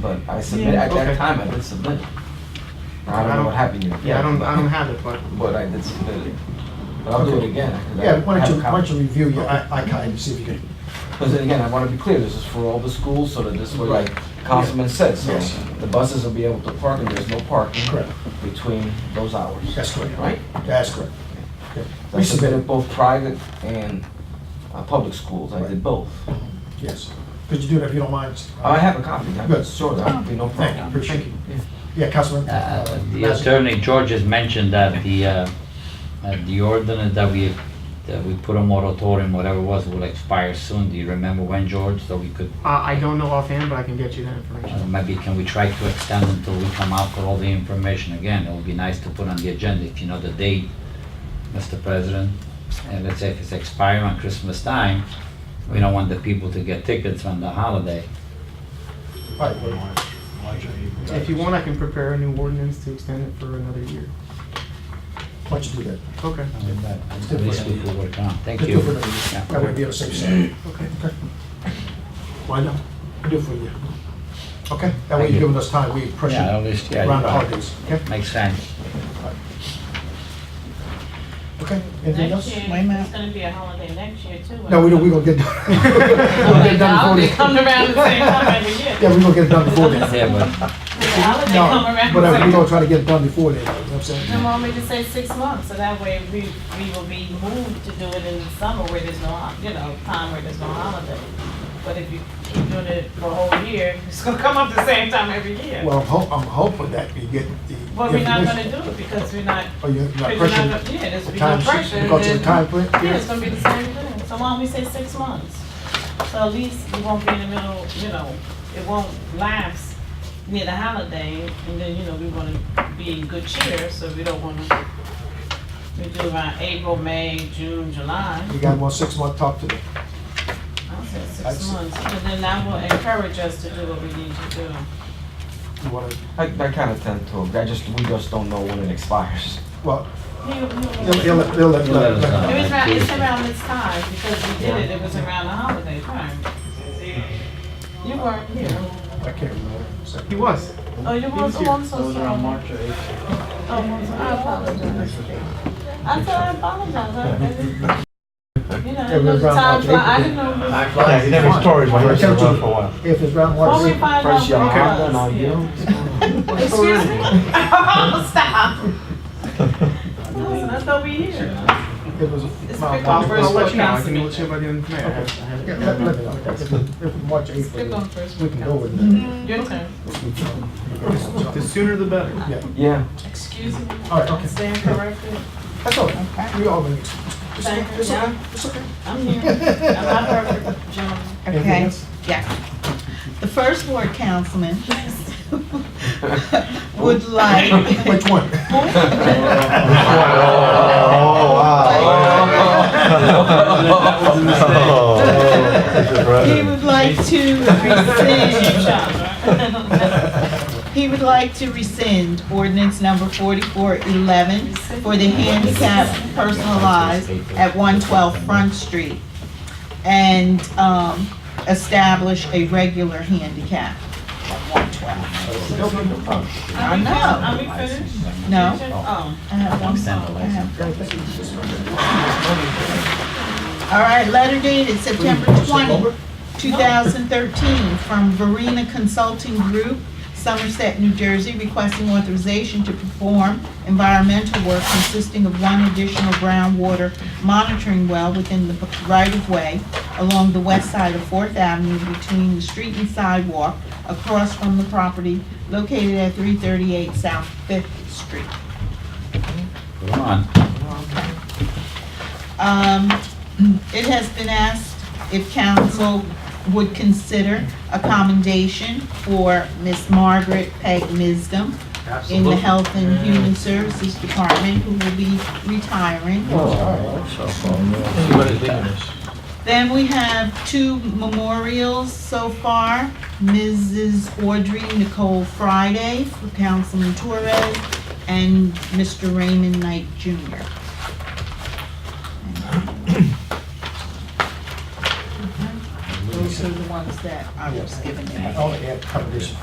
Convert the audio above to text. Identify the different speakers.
Speaker 1: but I submitted, at
Speaker 2: Yeah, okay.
Speaker 1: that time, I did submit. it. I don't know what happened. yet.
Speaker 2: Yeah, I don't, I don't have it, but,
Speaker 1: But I did submit it. But I'll do it
Speaker 3: Okay.
Speaker 1: again. 'cause I
Speaker 3: Yeah, why
Speaker 1: have
Speaker 3: don't
Speaker 1: a
Speaker 3: you, why don't
Speaker 1: copy.
Speaker 3: you review your i- ICAI and see if you can,
Speaker 1: Because then again, I want to be clear, this is for all the schools, so that this way, like Councilman said, so
Speaker 3: Yes.
Speaker 1: the buses will be able to park and there's no parking
Speaker 3: Correct.
Speaker 1: between those hours.
Speaker 3: that's correct.
Speaker 1: Mm-hmm. Right?
Speaker 3: That's correct. Okay.
Speaker 1: I
Speaker 3: We
Speaker 1: submitted
Speaker 3: submitted,
Speaker 1: both private and uh, public schools, I did
Speaker 3: Right.
Speaker 1: both. Oh,
Speaker 3: yes. Could you do that if you don't mind?
Speaker 1: I have a copy, I'm
Speaker 3: Good.
Speaker 1: sure that would be no
Speaker 3: Thank you,
Speaker 1: problem.
Speaker 3: appreciate it. Yeah, Councilman.
Speaker 4: Uh,
Speaker 3: uh,
Speaker 4: The
Speaker 3: Mazza?
Speaker 4: Attorney George has mentioned that the, uh, uh, the ordinance that we, that we put a moratorium, whatever it was, will expire soon. Do you remember when, George? So we could,
Speaker 2: I, I don't know offhand, but I can get you that
Speaker 4: uh,
Speaker 2: information.
Speaker 4: maybe can we try to extend until we come out with all the information again? It would be nice to put on the agenda if you know the date, Mr. President. And let's say if it's expiring on Christmas time, we don't want the people to get tickets on the holiday.
Speaker 3: All right, well,
Speaker 2: If you want, I can prepare a new ordinance to extend it for another year.
Speaker 3: Why don't you do that?
Speaker 2: Okay,
Speaker 4: At least we could work on. Thank
Speaker 3: Let's do
Speaker 4: you.
Speaker 3: it for another year.
Speaker 4: Yeah.
Speaker 3: That would be on the safe side.
Speaker 2: okay.
Speaker 3: Why not? Do it for you. Okay, that way
Speaker 4: Thank
Speaker 3: you're
Speaker 4: you.
Speaker 3: giving us time, we appreciate
Speaker 4: Yeah, at
Speaker 3: it
Speaker 4: least, yeah.
Speaker 3: around the
Speaker 4: you're right.
Speaker 3: holidays, okay?
Speaker 4: Makes sense.
Speaker 3: Okay, anything
Speaker 5: Next
Speaker 3: else?
Speaker 5: year,
Speaker 6: Wait a minute.
Speaker 5: it's gonna be a holiday next year too.
Speaker 3: No, we don't, we're gonna get, we'll get
Speaker 5: They
Speaker 3: done
Speaker 5: holiday
Speaker 3: before
Speaker 5: come
Speaker 3: then.
Speaker 5: around the same time every year.
Speaker 3: Yeah, we're gonna get it done before then.
Speaker 4: Yeah, but
Speaker 5: The holiday come
Speaker 3: No, but uh,
Speaker 5: around
Speaker 3: we're
Speaker 5: the same.
Speaker 3: gonna try to get it done before then, you know what I'm saying?
Speaker 5: They want me to say six months, so that way we, we will be moved to do it in the summer where there's no, ho- you know, time where there's no holiday. But if you keep doing it for a whole year, it's gonna come up the same time every year.
Speaker 3: Well, I'm hope, I'm hoping that we get the.
Speaker 5: But we're not gonna
Speaker 3: information.
Speaker 5: do it because we're not,
Speaker 3: Oh, you're
Speaker 5: because
Speaker 3: not
Speaker 5: we're not,
Speaker 3: pressuring
Speaker 5: gonna- yeah, there's
Speaker 3: the
Speaker 5: be no
Speaker 3: time,
Speaker 5: pressure. and
Speaker 3: because of the
Speaker 5: then-
Speaker 3: time frame?
Speaker 5: Yeah, it's gonna be the same thing. So why don't we say six months? So at least you won't be in the middle, you know, it won't lapse near the holiday, and then, you know, we wanna be in good cheer, so we don't wanna, we do around April, May, June, July.
Speaker 3: You got one six-month talk to them.
Speaker 5: I'll say
Speaker 3: I
Speaker 5: six
Speaker 3: see.
Speaker 5: months, and then that will encourage us to do what we need to do.
Speaker 3: You wanna,
Speaker 1: I, I kind of tend to, I just, we just don't know when it expires.
Speaker 3: well,
Speaker 5: He- he-
Speaker 3: they'll, they'll, let- they'll, let-
Speaker 4: You'll let us
Speaker 3: let-
Speaker 4: know.
Speaker 5: It was around, it's around this time, because we did it, it was around the holiday time. You weren't here.
Speaker 3: I can't remember. So-
Speaker 2: He was.
Speaker 5: Oh, you
Speaker 2: was
Speaker 5: weren't, oh,
Speaker 2: here.
Speaker 5: I'm so sorry. Oh, I'm so- I apologize. I said, I apologize, I, I didn't. You know, it was time, fly- I didn't know.
Speaker 7: Yeah, you never stories
Speaker 3: I
Speaker 7: were
Speaker 3: told
Speaker 7: around
Speaker 3: you,
Speaker 7: for a while.
Speaker 3: If it's round
Speaker 5: Well, we
Speaker 3: one,
Speaker 5: find out
Speaker 1: First,
Speaker 5: what it
Speaker 1: y'all have done,
Speaker 5: was.
Speaker 1: I
Speaker 5: yeah.
Speaker 1: do.
Speaker 5: Excuse me? Oh, stop. Listen, I thought we here.
Speaker 3: if it was.
Speaker 5: It's
Speaker 3: my- my-
Speaker 5: pick on
Speaker 2: I'll, I'll
Speaker 5: first
Speaker 2: let
Speaker 5: word
Speaker 2: you know, I can
Speaker 5: council
Speaker 2: let you know by the end of May. I have, I have
Speaker 3: Yeah,
Speaker 2: it.
Speaker 3: let- let me know. If it's- if it's March,
Speaker 5: Pick
Speaker 3: April,
Speaker 5: on first
Speaker 3: we
Speaker 5: word
Speaker 3: can go with
Speaker 5: council.
Speaker 3: it.
Speaker 5: Your turn.
Speaker 2: The sooner the better.
Speaker 3: Yeah,
Speaker 1: Yeah.
Speaker 5: Excuse me.
Speaker 3: All right, okay.
Speaker 5: Stand corrected.
Speaker 3: that's all, right. we all, it's, it's okay,
Speaker 5: Thank you.
Speaker 3: it's okay, it's okay.
Speaker 5: I'm here. I'm not perfect, gentlemen.
Speaker 3: Anything
Speaker 6: Okay,
Speaker 3: else?
Speaker 6: yeah. The first ward councilman would like,
Speaker 3: Which one?
Speaker 7: Oh, wow.
Speaker 6: he would like to rescind, he would like to rescind ordinance number 4411 for the handicap personalized at 112 Front Street and um, establish a regular handicap at 112.
Speaker 5: Are we fin-
Speaker 6: No.
Speaker 5: Are we finished?
Speaker 6: No?
Speaker 5: Oh.
Speaker 6: I have one
Speaker 4: I'm sending
Speaker 6: song.
Speaker 4: the
Speaker 6: I
Speaker 4: license.
Speaker 6: have- All right, letter dated September 20, 2013, from Verena Consulting Group, Somerset, New Jersey, requesting authorization to perform environmental work consisting of one additional groundwater monitoring well within the right-of-way along the west side of Fourth Avenue between the street and sidewalk across from the property located at 338 South Fifth Street.
Speaker 4: Go on.
Speaker 6: Um, It has been asked if council would consider a commendation for Miss Margaret Peg Misdom in the Health and Human Services Department, who will be retiring. Then we have two memorials so far. Mrs. Audrey Nicole Friday for Councilman Torres and Mr. Raymond Knight Jr. Those are the ones that I was given.
Speaker 3: Oh, I only had a couple of issues.